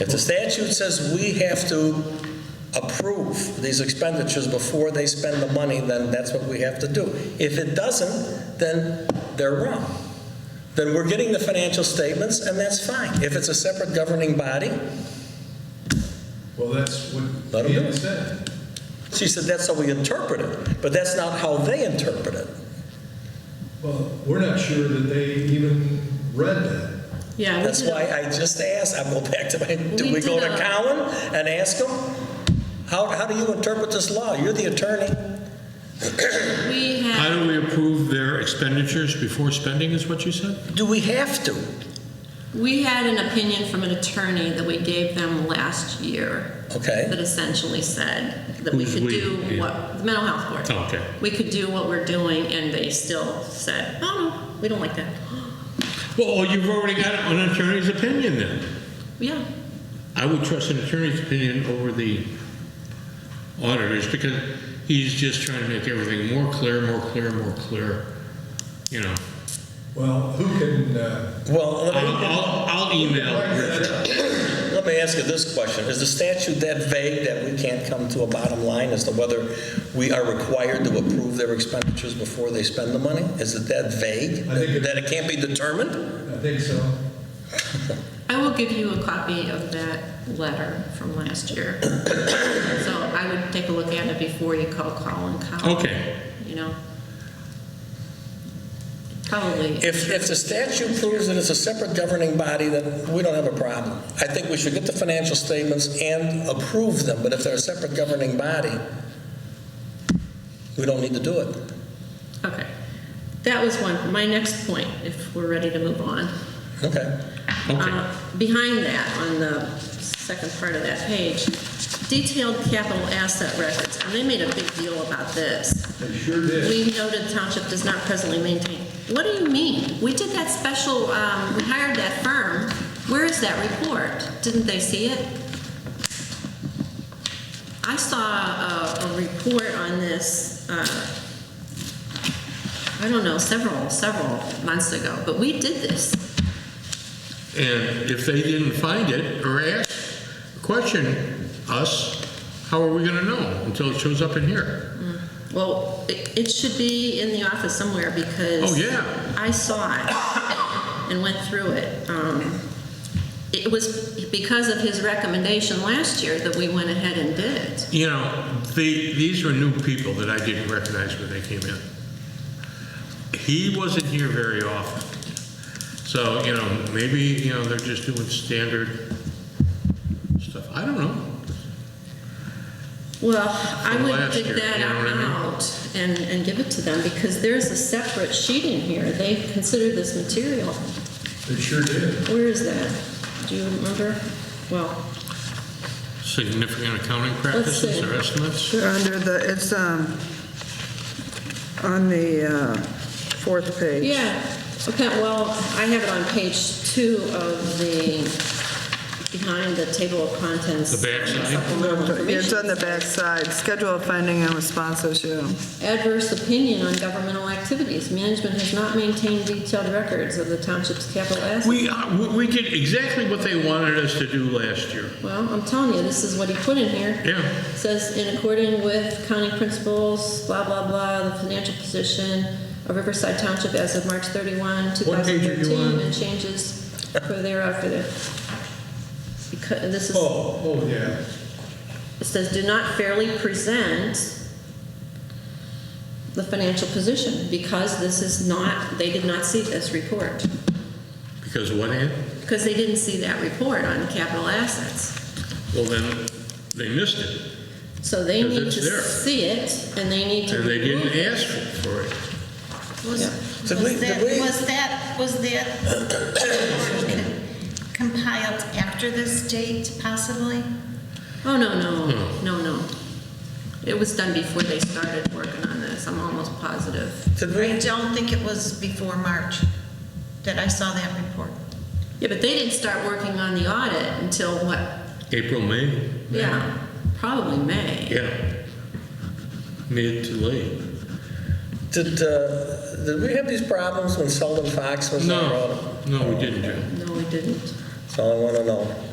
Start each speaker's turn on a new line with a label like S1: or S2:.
S1: If the statute says we have to approve these expenditures before they spend the money, then that's what we have to do. If it doesn't, then they're wrong. Then we're getting the financial statements, and that's fine. If it's a separate governing body,
S2: Well, that's what
S1: Let 'em do
S2: Deanna
S1: it.
S2: said.
S1: she said that's how we interpret it, but that's not how they interpret it.
S2: Well, we're not sure that they even read that.
S3: Yeah. we
S1: That's
S3: did a-
S1: why I just asked, I go back to my, do
S3: We
S1: we go to
S3: did a-
S1: Cowan and ask him? How, how do you interpret this law? You're the attorney.
S3: We
S4: How
S3: had,
S4: do we approve their expenditures before spending, is what you said?
S1: Do we have to?
S3: we had an opinion from an attorney that we gave them last year
S1: Okay.
S3: that essentially said that we
S4: Who's
S3: could
S4: we?
S3: do
S4: Yeah.
S3: what, the mental health board.
S4: Oh, okay.
S3: We could do what we're doing and they still said, oh, no, we don't like that.
S4: Well, oh, you've already got an attorney's opinion then.
S3: Yeah,
S4: I would trust an attorney's opinion over the auditor's because he's just trying to make everything more clear, more clear, more clear, you know.
S2: Well, who can, uh,
S1: Well, let me,
S4: I'll, I'll, I'll email Richard.
S1: let me ask you this question. Is the statute that vague that we can't come to a bottom line as to whether we are required to approve their expenditures before they spend the money? Is it that vague?
S2: I think it-
S1: That it can't be determined?
S2: I think so.
S3: I will give you a copy of that letter from last year. So I would take a look at it before you call Colin Cowan.
S4: Okay.
S3: You know? Probably.
S1: If, if the statute proves that it's a separate governing body, then we don't have a problem. I think we should get the financial statements and approve them, but if they're a separate governing body, we don't need to do it.
S3: Okay. That was one. My next point, if we're ready to move on.
S1: Okay.
S4: Okay.
S3: Uh, Behind that, on the second part of that page, detailed capital asset records, and they made a big deal about this.
S2: They sure did.
S3: We noted township does not presently maintain. What do you mean? We did that special, um, we hired that firm. Where is that report? Didn't they see it? I saw a, a report on this, uh, I don't know, several, several months ago, but we did this.
S4: And if they didn't find it or ask, question us, how are we gonna know until it shows up in here?
S3: Well, it, it should be in the office somewhere because.
S4: Oh, yeah.
S3: I saw it and went through it. Um, It was because of his recommendation last year that we went ahead and did it.
S4: You know, the, these were new people that I didn't recognize when they came in. He wasn't here very often. So, you know, maybe, you know, they're just doing standard stuff. I don't know.
S3: Well, I
S4: From
S3: would
S4: last
S3: dig
S4: year,
S3: that
S4: you know what I mean?
S3: out and, and give it to them because there's a separate sheet in here. They consider this material.
S2: They sure did.
S3: Where is that? Do you remember? Well,
S4: Significant accounting practices
S3: see.
S4: or estimates?
S5: They're under the, it's um, on the uh, fourth page.
S3: Yeah, okay, well, I have it on page two of the, behind the table of contents.
S4: The backside?
S3: Supplemental
S5: It's
S3: information.
S5: on the back side. schedule of finding and response issue.
S3: Adverse opinion on governmental activities. Management has not maintained detailed records of the township's capital assets.
S4: We, uh, we- we did exactly what they wanted us to do last year.
S3: Well, I'm telling you, this is what he put in here.
S4: Yeah.
S3: Says in according with county principles, blah, blah, blah, the financial position of Riverside Township as of March 31,
S4: What page are you
S3: 2013,
S4: on?
S3: and changes for thereafter. Because, this is.
S2: Oh, oh, yeah.
S3: It says, do not fairly present the financial position, because this is not, they did not see this report.
S4: Because what, Ann?
S3: Because they didn't see that report on capital assets.
S4: Well, then, they missed it,
S3: So they
S4: Because
S3: need
S4: it's
S3: to
S4: there.
S3: see it, and they need to.
S4: and they
S3: remove
S4: didn't
S3: it.
S4: ask for it.
S6: Was
S1: Did we-
S6: was
S1: did
S6: that,
S1: we-
S6: was that, was that compiled after this date possibly?
S3: Oh, no,
S4: Hmm.
S3: no, no, no. It was done before they started working on this, I'm almost positive.
S1: Did
S6: I
S1: we,
S6: don't think it was before March that I saw that report.
S3: Yeah, but they didn't start working on the audit until what,
S4: April, May?
S3: yeah, probably May.
S4: Yeah. Mid to late.
S1: did, uh, did we have these problems when Sheldon Fox was on the road?
S4: No, no, we didn't, Joe.
S3: No, we didn't.
S1: That's all I want to know.